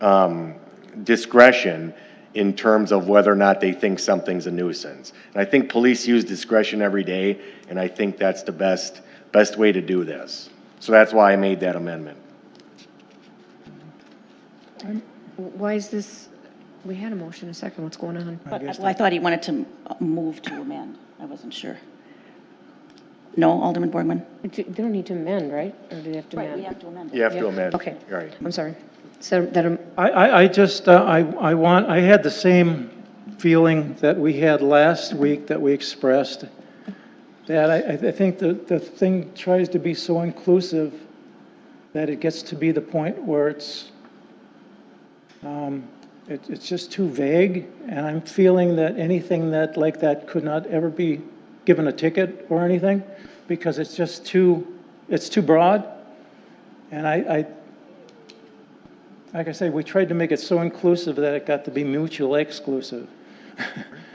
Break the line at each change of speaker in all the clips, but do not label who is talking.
um, discretion in terms of whether or not they think something's a nuisance. And I think police use discretion every day, and I think that's the best, best way to do this. So that's why I made that amendment.
Why is this, we had a motion, a second, what's going on?
But, well, I thought he wanted to uh, move to amend. I wasn't sure. No, Alderman Borgman?
They don't need to amend, right? Or do they have to
Right, we
amend?
have to amend
You
it.
have to amend.
Okay.
Right.
I'm sorry. So that, um,
I, I, I just, uh, I, I want, I had the same feeling that we had last week that we expressed, that I, I think the, the thing tries to be so inclusive that it gets to be the point where it's, um, it, it's just too vague, and I'm feeling that anything that, like that could not ever be given a ticket or anything, because it's just too, it's too broad, and I, I, like I say, we tried to make it so inclusive that it got to be mutually exclusive.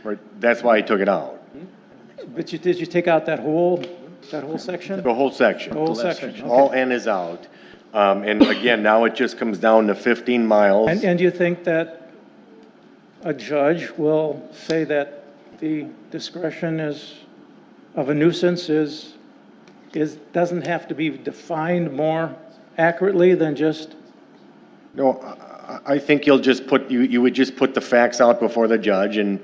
Right. That's why I took it out,
But you, did you take out that whole, that whole section?
the whole section.
The whole section,
All
okay.
N is out. Um, And again, now it just comes down to 15 miles.
And, and you think that a judge will say that the discretion is, of a nuisance is, is, doesn't have to be defined more accurately than just,
No, I- I I think you'll just put, you you would just put the facts out before the judge, and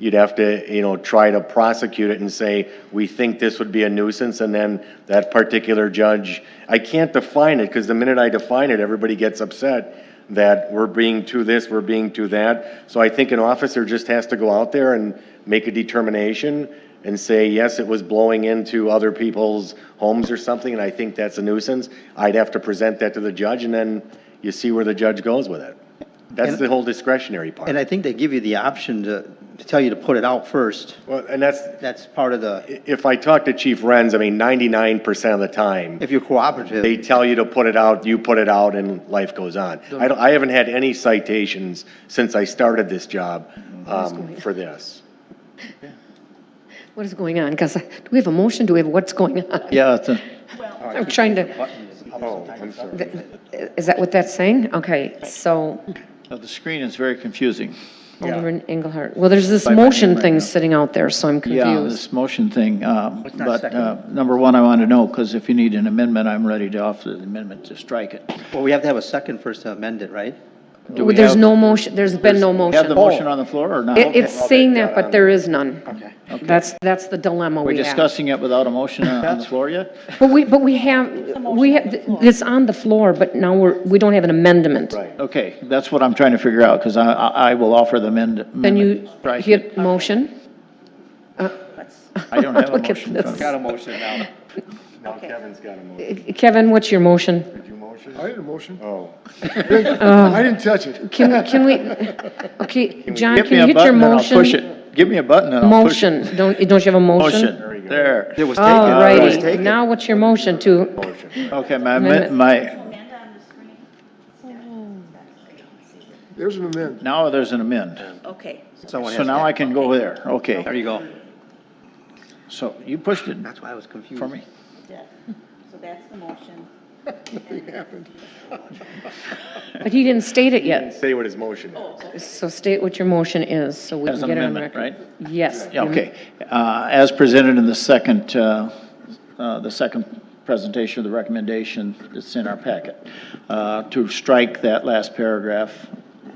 you'd have to, you know, try to prosecute it and say, we think this would be a nuisance, and then that particular judge, I can't define it, because the minute I define it, everybody gets upset that we're being too this, we're being too that. So I think an officer just has to go out there and make a determination and say, yes, it was blowing into other people's homes or something, and I think that's a nuisance. I'd have to present that to the judge, and then you see where the judge goes with it. That's the whole discretionary
And I
part.
think they give you the option to, to tell you to put it out first.
Well, and that's,
That's part of the,
i- if I talk to Chief Renz, I mean, ninety-nine percent of the time,
if you're cooperative.
they tell you to put it out, you put it out, and life goes on. I don't, I haven't had any citations since I started this job, um, for this.
what is going on? Because do we have a motion? Do we have, what's going on?
Yeah, it's a.
I'm trying to, uh,
Oh, I'm sorry.
is that what that's saying? Okay, so
The screen is very confusing.
Alderman Engelhardt, well, there's this motion thing sitting out there, so I'm
Yeah,
confused.
this motion thing, um,
not
but
second?
uh, number one, I want to know, because if you need an amendment, I'm ready to offer the amendment to strike it.
Well, we have to have a second first to amend it, right?
Do
Well,
we
There's
have-
no motion, there's been no motion.
Have the motion on the floor or not?
It- It's saying that, but there is none. Okay. That's, that's the dilemma
We're
we have.
discussing it without a motion on on the floor yet?
But we, but we have, we have, it's on the floor, but now we're, we don't have an amendment.
Right.
Okay, that's what I'm trying to figure out, because I, I I will offer the amend-
Then
amendment.
you
to strike it.
hit motion?
I don't have a
Look at
motion. in front of me.
this.
motion now.
Now Kevin's got a motion.
Kevin, what's your motion? Oh.
Did you motion?
I didn't motion.
Oh.
I didn't touch it.
Can, can we, okay, John,
Give me
can
a
you hit your
button and I'll
motion?
push it. Give me a button and I'll push it.
Motion, don't, don't you have a motion?
Motion, there.
It was taken.
All
It was
righty,
taken.
Oh, now what's your motion to,
Okay, my,
Amendment.
amen- my,
Amend on the screen?
There's an amendment.
now there's an amend.
Okay.
Someone
So
has,
now I can go there,
there
okay.
you go.
So you pushed it
That's why I was confused.
for me.
Yeah. So that's the motion.
but he didn't state it yet,
Say what his motion is.
so state what your motion is, so we
As
can
an
get it on
amendment,
record.
right?
Yes.
Yeah, okay. Uh, As presented in the second, uh, uh, the second presentation of the recommendation that's in our packet, uh, to strike that last paragraph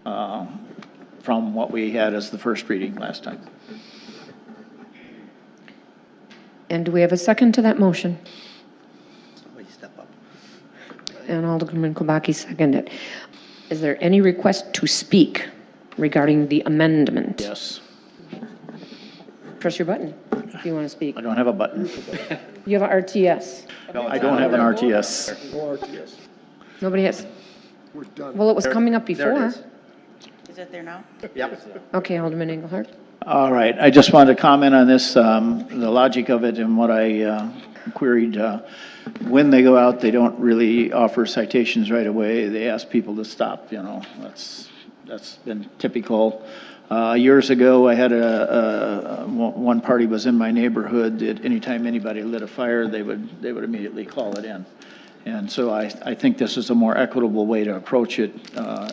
uh, from what we had as the first reading last time.
And do we have a second to that motion?
Somebody step up.
And Alderman Kubaki seconded. Is there any request to speak regarding the amendment?
Yes.
Press your button if you want to speak.
I don't have a button.
You have a RTS.
I don't have an RTS.
No RTS.
Nobody has,
We're done.
well, it was coming up before.
There it is.
Is it there now?
Yep.
Okay, Alderman Engelhardt.
All right, I just wanted to comment on this, um, the logic of it and what I uh, queried. uh, When they go out, they don't really offer citations right away. They ask people to stop, you know, that's, that's been typical. Uh, Years ago, I had a, a- one one party was in my neighborhood, that anytime anybody lit a fire, they would, they would immediately call it in. And so I, I think this is a more equitable way to approach it. uh,